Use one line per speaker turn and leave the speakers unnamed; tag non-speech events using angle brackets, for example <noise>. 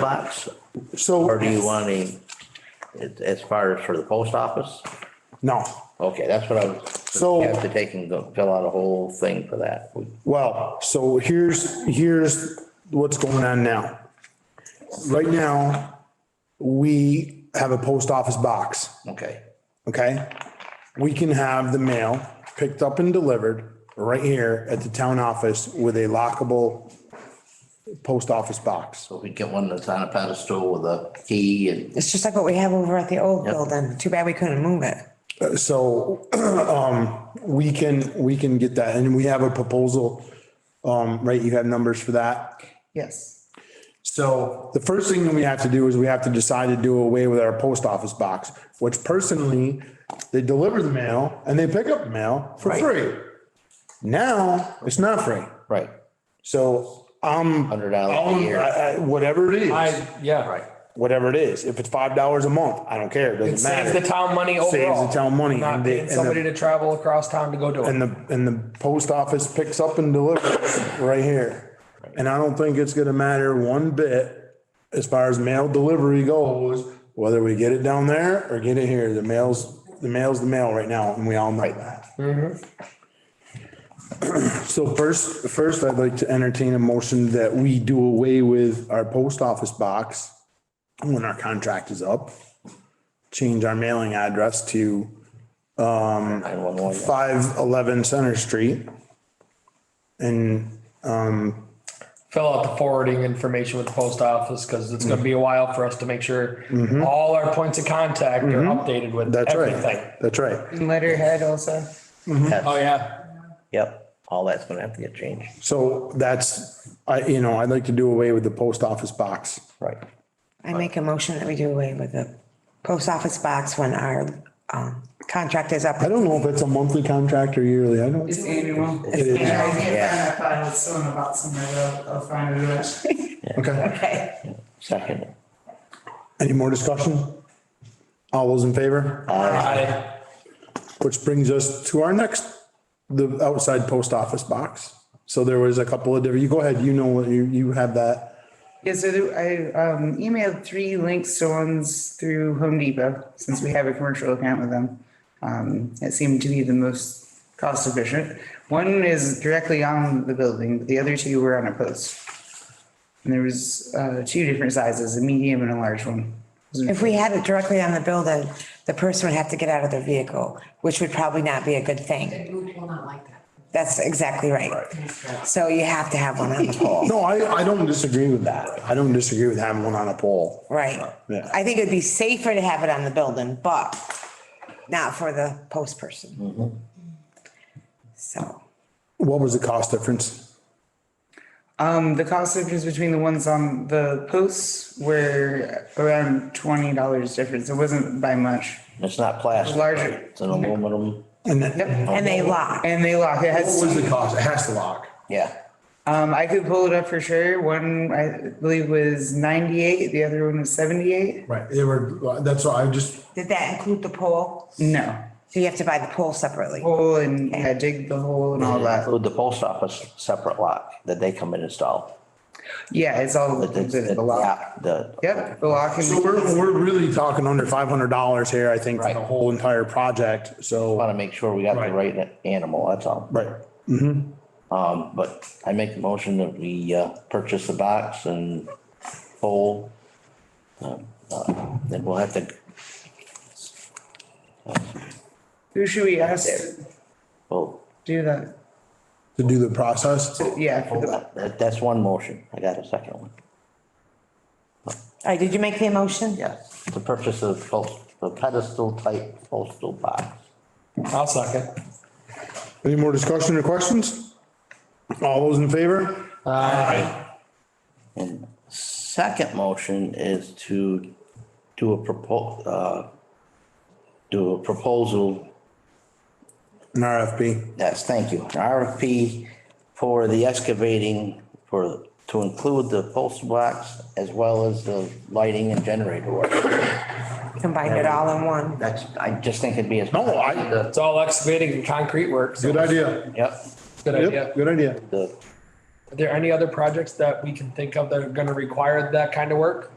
mailbox, or do
So,
you want him, as- as far as for the post office?
no,
Okay, that's what I was,
So-
you have to take and go fill out a whole thing for that.
well, so here's, here's what's going on now. Right now, we have a post office box,
Okay,
okay? We can have the mail picked up and delivered right here at the town office with a lockable post office box.
so we get one that's on a pedestal with a key and,
It's just like what we have over at the old building. Too bad we couldn't move it.
So <clears throat> um, we can, we can get that and we have a proposal, um, right? You have numbers for that?
Yes.
So the first thing that we have to do is we have to decide to do away with our post office box, which personally, they deliver the mail and they pick up the mail for
Right.
free. Now, it's not free.
right,
So I'm,
hundred dollars a
I'm-
year.
I- I- whatever it is,
I, yeah,
Right,
whatever it is, if it's five dollars a month, I don't care, it
it
doesn't
saves the
matter.
town money overall.
the town money,
Not
and they-
paying
and the-
somebody to travel across town to go do it.
And the, and the post office picks up and delivers right here. And I don't think it's gonna matter one bit as far as mail delivery goes, whether we get it down there or get it here, the mail's, the mail's the mail right now, and we all know that. So first, first I'd like to entertain a motion that we do away with our post office box when our contract is up. Change our mailing address to
nine one one,
five eleven Center Street. And
Fill out the forwarding information with the post office because it's
Mm-hmm.
gonna be a while for us to make sure all our points of contact are updated with
Mm-hmm. that's
everything.
right, that's right.
Letterhead also.
Oh, yeah.
yep, all that's gonna have to get changed,
So that's, I, you know, I'd like to do away with the post office box.
right.
I make a motion that we do away with the post office box when our um contract is up.
I don't know if it's a monthly contract or yearly, I don't,
It's annual.
It is.
Yeah, I can't
Yeah.
find that file, it's still in the box somewhere, but I'll, I'll find it. eventually.
okay.
Second,
Any more discussion? All those in favor?
I,
Which brings us to our next, the outside post office box. So there was a couple of different, you go ahead, you know, what you, you have that.
Yeah, so there- I um, emailed three links to ones through Home Depot, since we have a commercial account with them. Um, It seemed to be the most cost efficient. One is directly on the building, but the other two were on a post. And there was uh, two different sizes, a medium and a large one.
If we had it directly on the building, the person would have to get out of their vehicle, which would probably not be a good thing.
Group will not like that.
That's exactly right. So you have to have one on the <laughs> pole,
No, I, I don't disagree with that. I don't disagree with having one on a pole.
right?
Yeah.
I think it'd be safer to have it on the building, but not for the post person. So.
What was the cost difference?
Um, the cost difference between the ones on the posts were around twenty dollars difference. It wasn't by much.
it's not plastic.
Larger.
right? It's an aluminum,
And that,
And they lock.
And they lock, it
what
has,
was the cost? It has to lock.
yeah,
um, I could pull it up for sure. One, I believe was ninety-eight, the other one was seventy-eight.
Right, they were, that's why I just,
Did that include the pole?
No,
So you have to buy the pole separately.
hole and, yeah, dig the hole and all that.
with the post office separate lock that they come and install.
Yeah, it's all
But
the,
it's-
the lock.
yeah, The,
Yep, the lock
so
and,
we're, we're really talking under five hundred dollars here, I think, for the
Right.
whole entire project, so.
want to make sure we got the
Right.
right animal, that's all.
Right, Mm-hmm.
Um, but I make the motion that we, uh, purchase the box and pole. Um, uh, Then we'll have to,
who should we ask to
well,
do that?
to do the process,
Yeah, for the,
that, that's one motion. I got a second one.
All right, did you make the motion?
Yes, to purchase the post, the pedestal type postal box.
I'll suck it.
any more discussion or questions? All those in favor?
And second motion is to do a propo, uh, do a proposal
An RFP,
Yes, thank you. An RFP for the excavating for, to include the postal box as well as the lighting and generator work.
Combined it all in one.
That's, I just think it'd be as.
No, I-
It's all excavating and concrete work. so
good idea,
Yep,
Good idea.
yep, good idea,
the
Are there any other projects that we can think of that are gonna require that kind of work?